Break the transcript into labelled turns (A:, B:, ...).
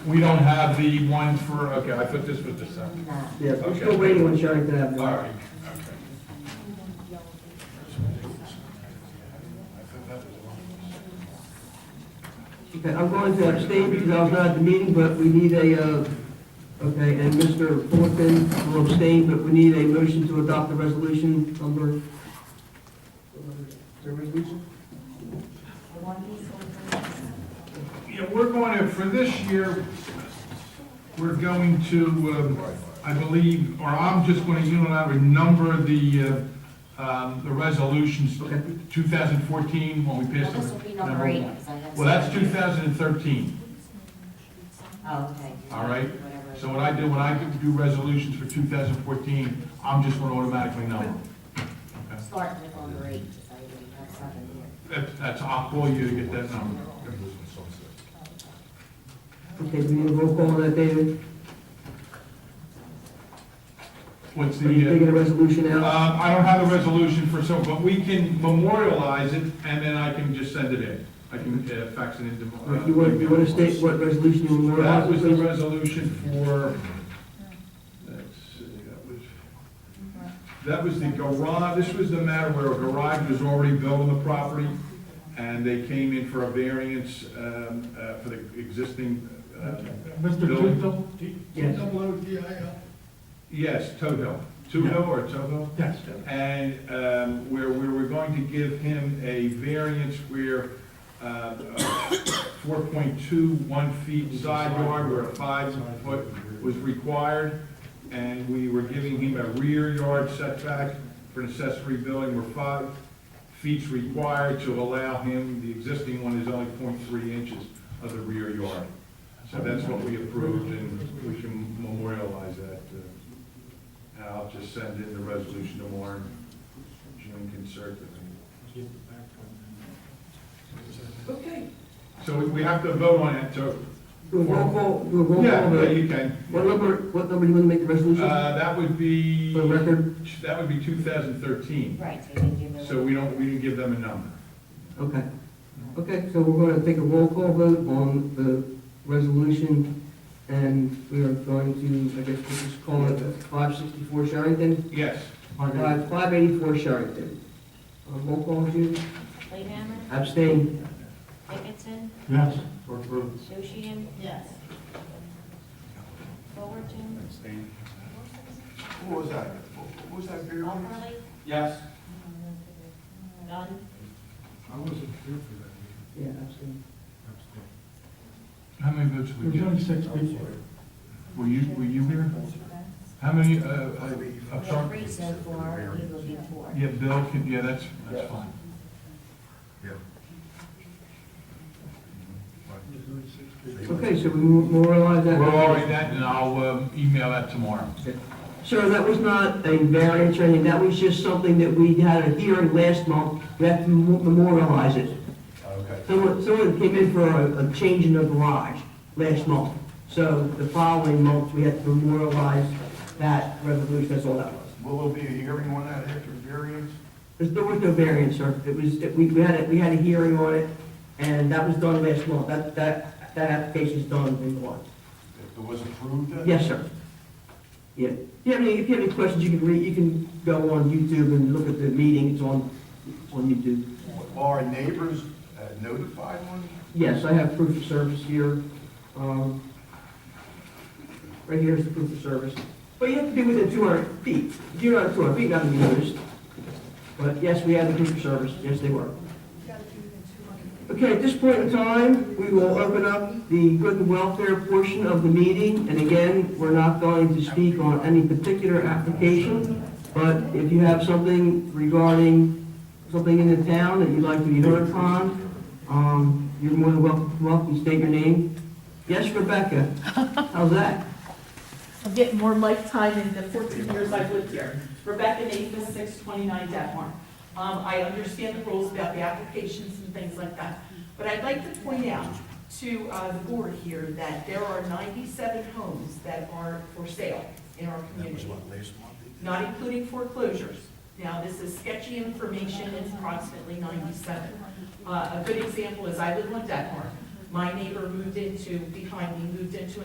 A: We don't have the one for, okay, I thought this was the second.
B: Yeah, we're
A: Okay.
B: still waiting on Sherrington Avenue.
A: All right, okay.
B: Okay, I'm going to abstain because I was not at the meeting, but we need a, uh, okay, and Mr. Fulton will abstain, but we need a motion to adopt the resolution number. The resolution?
A: Yeah, we're going to, for this year, we're going to, um, I believe, or I'm just going to unilaterally number the, uh, um, the resolutions, 2014, when we
C: Well,
A: passed.
C: this will be number eight, because I have.
A: Well, that's
C: seven.
A: 2013.
C: Oh, okay.
A: All right.
C: Whatever.
A: So what I do, when I do resolutions for 2014, I'm just going to automatically number. them. Okay?
C: Start with number eight, because I didn't have seven here.
A: That's- That's, I'll call you to get that number.
B: Okay, we need a roll call on that, David.
A: What's the?
B: Are you
A: uh,
B: taking a resolution out?
A: Uh, I don't have a resolution for some, but we can memorialize it, and then I can just send it in. I can uh, fax it into.
B: Or if you want, you want to state what resolution you want to
A: That was the
B: adopt?
A: resolution for, let's see, that was, that was the garage, this was the matter where a garage was already built on the property, and they came in for a variance um, uh, for the existing. uh,
D: Mr.
A: building.
D: Tindall?
B: Yes.
A: Yes, Toho. Tudo or Toho?
D: Yes.
A: and um, where we were going to give him a variance where uh, 4.21 feet side yard, where a five foot was required, and we were giving him a rear yard setback for an accessory building where five feet's required to allow him, the existing one is only 0.3 inches of the rear yard. So that's what we approved, and we can memorialize that. uh, and I'll just send in the resolution tomorrow, and June can circulate.
B: Okay.
A: So we- we have to vote on it, so,
B: Do a roll call, do a roll call.
A: yeah,
B: on
A: yeah,
B: that.
A: you can.
B: What number, what number do you want to make the resolution?
A: Uh, that would be,
B: For the record?
A: that would be two thousand thirteen,
C: Right, so you can give them.
A: so we don't, we didn't give them a number.
B: Okay. Okay, so we're going to take a roll call vote on the resolution, and we are going to, I guess we'll just call it 564 Sherrington,
A: Yes,
B: or five- 584 Sherrington. Uh, Roll call, Jude?
C: Playhammer,
B: Abstain.
C: Dickinson,
D: Yes.
C: Sushian. Yes. Fullerton,
E: What was that? What was that period?
C: Walperly,
A: yes.
C: Dunn,
D: I wasn't here for that meeting.
B: Yeah, abstain.
A: How many votes did
D: There
A: we
D: was only
A: get?
D: six people.
A: Were you, were you here? How many, uh, uh, I'm
C: we have
A: sorry?
C: three so far, you will be four.
A: Yeah, Bill, can- yeah, that's, that's fine.
B: Okay, so we memorialize that.
A: We'll already that, and I'll um, email that tomorrow.
B: Sir, that was not a variance or anything, that was just something that we had a hearing last month, we have to memorialize it.
A: Okay.
B: Someone, someone came in for a, a change in the garage last month. So the following month, we had to memorialize that resolution, that's all that was.
E: Will there be a hearing on that after variance?
B: There's, there was no variance, sir. It was, it- we, we had a, we had a hearing on it, and that was done last month. That, that, that application's done in March.
E: If it was approved? uh,
B: Yes, sir. Yeah. If you have any, if you have any questions, you can read, you can go on YouTube and look at the meeting. It's on, on YouTube.
E: Are neighbors uh, notified on?
B: Yes, I have proof of service here. Um, Right here is the proof of service. But you have to be within 200 feet. If you're not 200 feet, not to be noticed. But yes, we have the proof of service. Yes, they were. Okay, at this point in time, we will open up the good and welfare portion of the meeting. And again, we're not going to speak on any particular application, but if you have something regarding something in the town that you'd like to be heard upon, um, you're more than welcome to come up and state your name. Yes, Rebecca, how's that?
F: I'm getting more mic time in the 14 years I've lived here. Rebecca Nathan, 629 Detmar. Um, I understand the rules about the applications and things like that, but I'd like to point out to uh, the board here that there are 97 homes that are for sale in our community,
E: last month they did?
F: not including foreclosures. Now, this is sketchy information, it's approximately 97. Uh, A good example is I live on Detmar. my neighbor moved into, behind me, moved into